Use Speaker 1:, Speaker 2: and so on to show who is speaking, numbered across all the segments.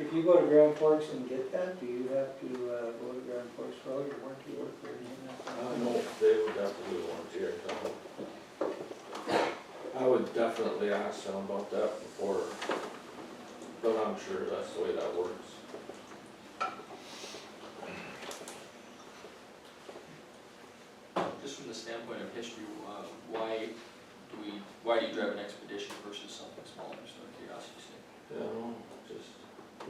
Speaker 1: If you go to Grand Forks and get that, do you have to uh, go to Grand Forks for all your warranty work or anything like
Speaker 2: I
Speaker 1: that?
Speaker 2: don't know if they would have to do one here, no. I would definitely ask them about that before, but I'm sure that's the way that works.
Speaker 3: Just from the standpoint of history, uh, why do we, why do you drive an expedition versus something smaller, just out of curiosity sake?
Speaker 2: You know, just,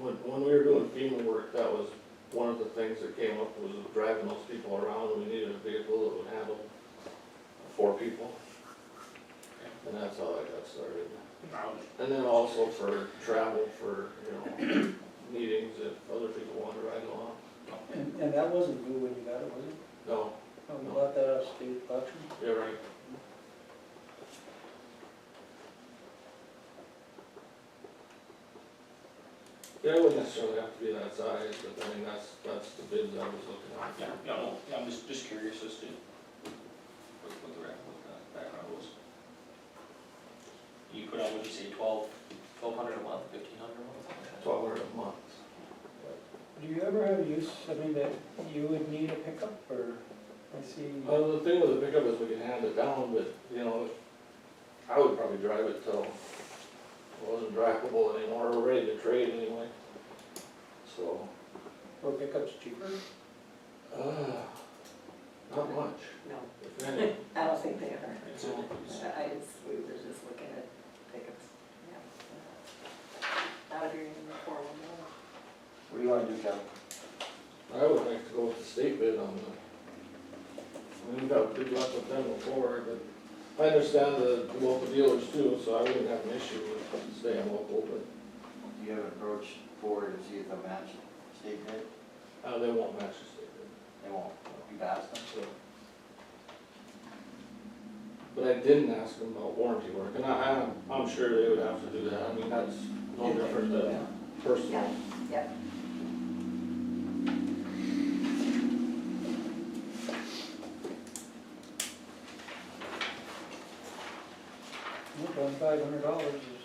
Speaker 2: when, when we were doing FEMA work, that was one of the things that came up, was driving those people around, we needed a vehicle that would handle four people. And that's how I got started. And then also for travel, for, you know, meetings, if other people wanted to ride along.
Speaker 1: And, and that wasn't new when you got it, was it?
Speaker 2: No,
Speaker 1: Oh, You
Speaker 2: No.
Speaker 1: bought that off state auction?
Speaker 2: you're right. Yeah, it wouldn't necessarily have to be that size, but I mean, that's, that's the bids I was looking at.
Speaker 3: Yeah, yeah, no, yeah, I'm just, just curious as to what, what the, rec- what the background was. You put out, what'd you say, twelve, twelve hundred a month, fifteen hundred a month? something like that?
Speaker 2: Twelve hundred a month.
Speaker 1: Do you ever have use, I mean, that you would need a pickup or, I see,
Speaker 2: Well, Uh, the thing with the pickup is we can hand it down, but, you know, I would probably drive it till it wasn't drivable anymore, we're ready to trade anyway. So,
Speaker 1: were pickups cheaper?
Speaker 2: uh, not much,
Speaker 4: No,
Speaker 2: if any.
Speaker 4: I don't think they are.
Speaker 3: It's a- it's-
Speaker 4: I just, we were just looking at pickups, yeah. Out of your uniform, no.
Speaker 5: What do you wanna do, Kevin?
Speaker 2: I would like to go with the state bid on the, we've got good luck with them before, but I understand the local dealers too, so I wouldn't have an issue with staying local, but,
Speaker 5: Do you have an approach forward and see if they'll match state bid?
Speaker 2: uh, they won't match the state bid.
Speaker 5: They won't, you've asked them.
Speaker 2: so. But I didn't ask them about warranty work, and I, I'm, I'm sure they would have to do that, I mean, that's no different than personal.
Speaker 4: Yeah,
Speaker 1: Look, on five hundred dollars is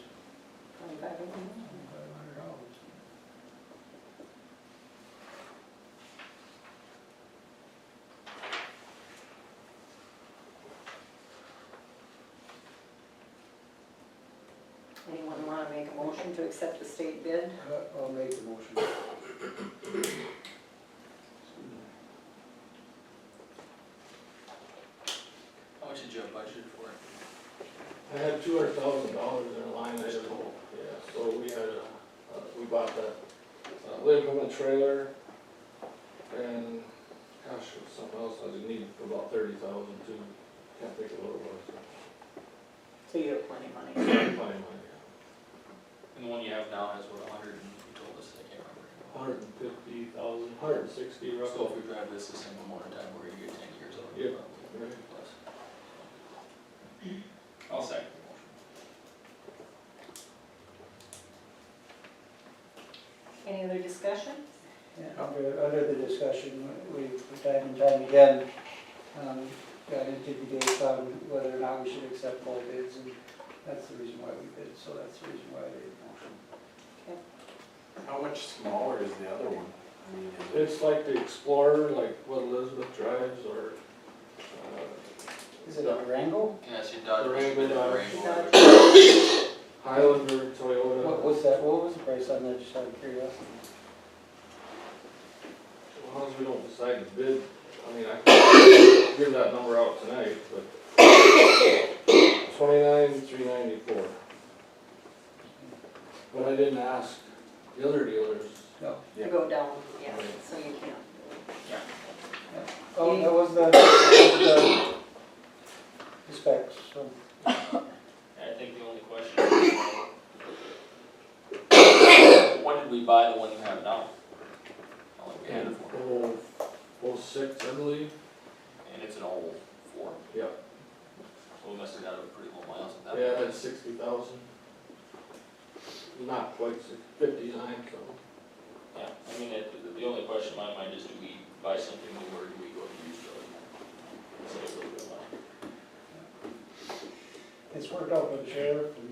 Speaker 4: twenty-five of them.
Speaker 1: five hundred dollars.
Speaker 4: Anyone wanna make a motion to accept the state bid?
Speaker 1: Uh, I'll make the motion.
Speaker 3: How much did you have budgeted for it?
Speaker 2: I had two hundred thousand dollars in a line item, yeah, so we had a, uh, we bought that, uh, living room and trailer, and, gosh, it was something else I didn't need for about thirty thousand too, can't think of what it
Speaker 4: So you have plenty of money.
Speaker 2: was. Money, money,
Speaker 3: And the one you have now has what, a hundred and, you told us, I can't remember.
Speaker 2: Hundred and fifty thousand, hundred and sixty roughly.
Speaker 3: So if we drive this the same amount of time, we're gonna get ten years out of it.
Speaker 2: Yeah.
Speaker 3: probably, plus. I'll second the motion.
Speaker 4: Any other discussion?
Speaker 1: Yeah, Under, under the discussion, we, from time and time again, um, got into debates on whether or not we should accept all bids, and that's the reason why we bid, so that's the reason why they motion.
Speaker 5: How much smaller is the other one? I mean, is it-
Speaker 2: It's like the Explorer, like what Elizabeth drives, or, uh,
Speaker 1: Is it a Wrangle?
Speaker 3: Yeah, see Dodge.
Speaker 2: Durango, Dodge.
Speaker 3: Durango.
Speaker 2: Highlander,
Speaker 1: What
Speaker 2: Toyota.
Speaker 1: was that, what was the price on that, just out of curiosity?
Speaker 2: As long as we don't decide to bid, I mean, I can give that number out tonight, but twenty-nine, three ninety-four. But I didn't ask the other dealers.
Speaker 1: No.
Speaker 4: To
Speaker 5: Yeah.
Speaker 4: go down, yeah, so you can't.
Speaker 1: Oh, that was the, that was the specs, so.
Speaker 3: I think the only question is. When did we buy the one you have now? How long we had it for?
Speaker 2: Oh, oh six, I believe.
Speaker 3: And it's an old Ford,
Speaker 2: Yeah.
Speaker 3: so we must have got it pretty low miles at that.
Speaker 2: Yeah, it had sixty thousand. Not quite six, fifty-nine, so.
Speaker 3: Yeah, I mean, it, the- the only question in my mind is, do we buy something new or do we go to used or? Save a little bit of money.
Speaker 1: It's worked out for the sheriff and